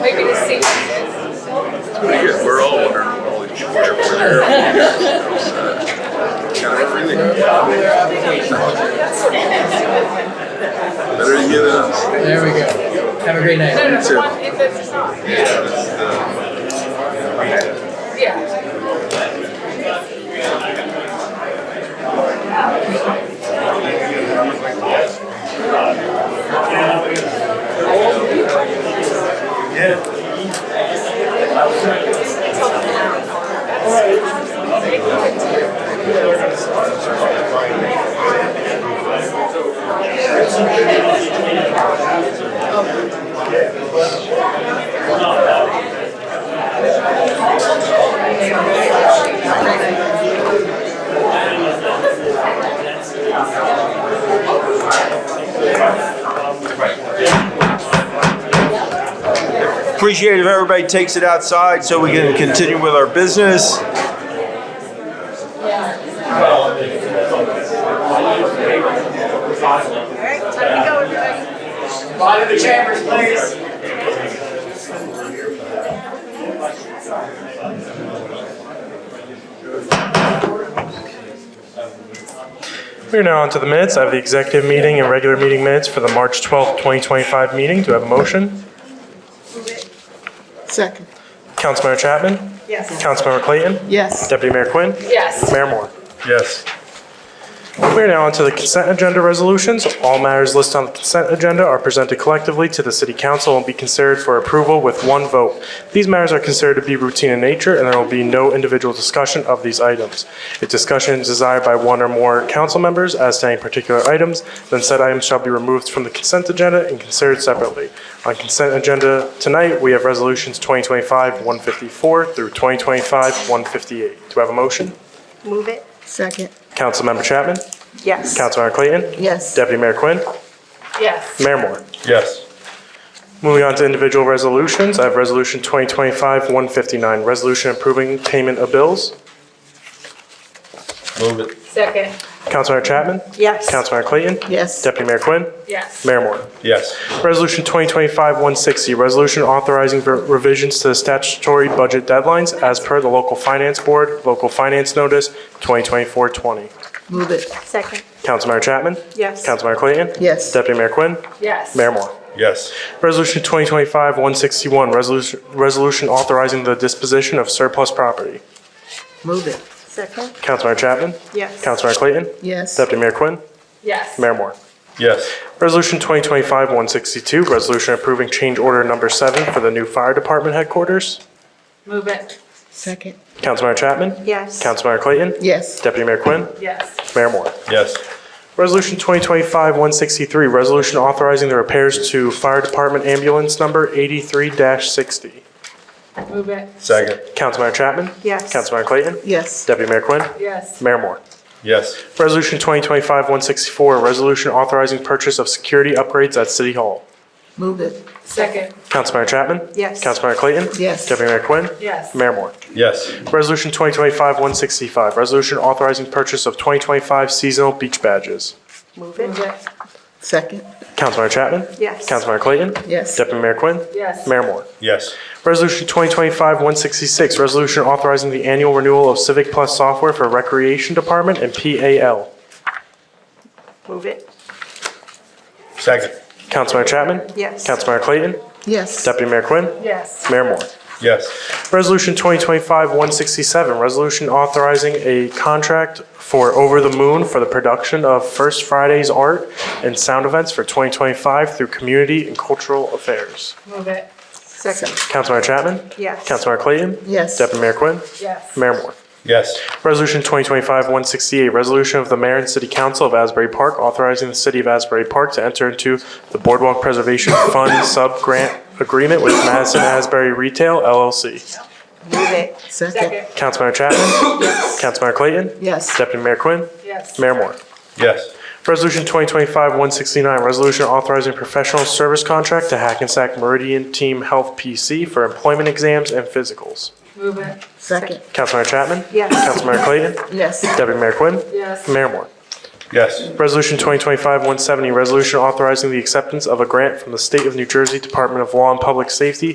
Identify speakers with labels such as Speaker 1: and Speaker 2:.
Speaker 1: Maybe the sequences.
Speaker 2: Again, we're all wondering what all these people are over there. It's, uh, Kind of everything. Better to get a,
Speaker 3: There we go. Have a great night.
Speaker 1: No, no, no,
Speaker 2: Too.
Speaker 1: the one, if it's a song. Yeah.
Speaker 4: Appreciate if everybody takes it outside so we can continue with our business.
Speaker 5: Body of the chambers, please.
Speaker 6: We are now on to the minutes. I have the executive meeting and regular meeting minutes for the March 12th, 2025 meeting. Do I have a motion?
Speaker 7: Second.
Speaker 6: Councilmember Chapman?
Speaker 1: Yes.
Speaker 6: Councilmember Clayton?
Speaker 7: Yes.
Speaker 6: Deputy Mayor Quinn?
Speaker 1: Yes.
Speaker 6: Mayor Moore?
Speaker 2: Yes.
Speaker 6: We are now on to the consent agenda resolutions. All matters listed on the consent agenda are presented collectively to the City Council and be considered for approval with one vote. These matters are considered to be routine in nature, and there will be no individual discussion of these items. If discussion is desired by one or more council members as to any particular items, then said items shall be removed from the consent agenda and considered separately. On consent agenda tonight, we have resolutions 2025-154 through 2025-158. Do I have a motion?
Speaker 7: Move it. Second.
Speaker 6: Councilmember Chapman?
Speaker 7: Yes.
Speaker 6: Councilmember Clayton?
Speaker 7: Yes.
Speaker 6: Deputy Mayor Quinn?
Speaker 1: Yes.
Speaker 6: Mayor Moore.
Speaker 2: Yes.
Speaker 6: Moving on to individual resolutions, I have Resolution 2025-159, resolution approving payment of bills.
Speaker 2: Move it.
Speaker 1: Second.
Speaker 6: Councilmember Chapman?
Speaker 7: Yes.
Speaker 6: Councilmember Clayton?
Speaker 7: Yes.
Speaker 6: Deputy Mayor Quinn?
Speaker 1: Yes.
Speaker 6: Mayor Moore.
Speaker 2: Yes.
Speaker 6: Resolution 2025-160, resolution authorizing ver- revisions to the statutory budget deadlines as per the Local Finance Board, Local Finance Notice 2024-20.
Speaker 7: Move it.
Speaker 1: Second.
Speaker 6: Councilmember Chapman?
Speaker 7: Yes.
Speaker 6: Councilmember Clayton?
Speaker 7: Yes.
Speaker 6: Deputy Mayor Quinn?
Speaker 1: Yes.
Speaker 6: Mayor Moore.
Speaker 2: Yes.
Speaker 6: Resolution 2025-161, resolution- resolution authorizing the disposition of surplus property.
Speaker 7: Move it. Second.
Speaker 6: Councilmember Chapman?
Speaker 7: Yes.
Speaker 6: Councilmember Clayton?
Speaker 7: Yes.
Speaker 6: Deputy Mayor Quinn?
Speaker 1: Yes.
Speaker 6: Mayor Moore.
Speaker 2: Yes.
Speaker 6: Resolution 2025-162, resolution approving change order number seven for the new fire department headquarters.
Speaker 1: Move it.
Speaker 7: Second.
Speaker 6: Councilmember Chapman?
Speaker 7: Yes.
Speaker 6: Councilmember Clayton?
Speaker 7: Yes.
Speaker 6: Deputy Mayor Quinn?
Speaker 1: Yes.
Speaker 6: Mayor Moore.
Speaker 2: Yes.
Speaker 6: Resolution 2025-163, resolution authorizing the repairs to fire department ambulance number 83-60.
Speaker 1: Move it.
Speaker 2: Second.
Speaker 6: Councilmember Chapman?
Speaker 7: Yes.
Speaker 6: Councilmember Clayton?
Speaker 7: Yes.
Speaker 6: Deputy Mayor Quinn?
Speaker 1: Yes.
Speaker 6: Mayor Moore.
Speaker 2: Yes.
Speaker 6: Resolution 2025-164, a resolution authorizing purchase of security upgrades at City Hall.
Speaker 7: Move it.
Speaker 1: Second.
Speaker 6: Councilmember Chapman?
Speaker 7: Yes.
Speaker 6: Councilmember Clayton?
Speaker 7: Yes.
Speaker 6: Deputy Mayor Quinn?
Speaker 1: Yes.
Speaker 6: Mayor Moore.
Speaker 2: Yes.
Speaker 6: Resolution 2025-165, resolution authorizing purchase of 2025 seasonal beach badges.
Speaker 7: Move
Speaker 1: Move it.
Speaker 7: Second.
Speaker 6: Councilmember Chapman?
Speaker 7: Yes.
Speaker 6: Councilmember Clayton?
Speaker 7: Yes.
Speaker 6: Deputy Mayor Quinn?
Speaker 1: Yes.
Speaker 6: Mayor Moore.
Speaker 2: Yes.
Speaker 6: Resolution 2025-166, resolution authorizing the annual renewal of Civic Plus software for Recreation Department and PAL.
Speaker 7: Move it.
Speaker 2: Second.
Speaker 6: Councilmember Chapman?
Speaker 7: Yes.
Speaker 6: Councilmember Clayton?
Speaker 7: Yes.
Speaker 6: Deputy Mayor Quinn?
Speaker 1: Yes.
Speaker 6: Mayor Moore.
Speaker 2: Yes.
Speaker 6: Resolution 2025-167, resolution authorizing a contract for Over the Moon for the production of First Friday's art and sound events for 2025 through Community and Cultural Affairs.
Speaker 1: Move it.
Speaker 7: Second.
Speaker 6: Councilmember Chapman?
Speaker 7: Yes.
Speaker 6: Councilmember Clayton?
Speaker 7: Yes.
Speaker 6: Deputy Mayor Quinn?
Speaker 1: Yes.
Speaker 6: Mayor Moore.
Speaker 2: Yes.
Speaker 6: Resolution 2025-168, resolution of the mayor and city council of Asbury Park authorizing the city of Asbury Park to enter into the Boardwalk Preservation Fund sub-grant agreement with Madison Asbury Retail LLC.
Speaker 7: Move it. Second.
Speaker 1: Second.
Speaker 6: Councilmember Chapman? Councilmember Clayton?
Speaker 7: Yes.
Speaker 6: Deputy Mayor Quinn?
Speaker 1: Yes.
Speaker 6: Mayor Moore.
Speaker 2: Yes.
Speaker 6: Resolution 2025-169, resolution authorizing professional service contract to Hackensack Meridian Team Health PC for employment exams and physicals.
Speaker 1: Move it.
Speaker 7: Second.
Speaker 6: Councilmember Chapman?
Speaker 7: Yes.
Speaker 6: Councilmember Clayton?
Speaker 7: Yes.
Speaker 6: Deputy Mayor Quinn?
Speaker 1: Yes.
Speaker 6: Mayor Moore.
Speaker 2: Yes.
Speaker 6: Resolution 2025-170, resolution authorizing the acceptance of a grant from the State of New Jersey Department of Law and Public Safety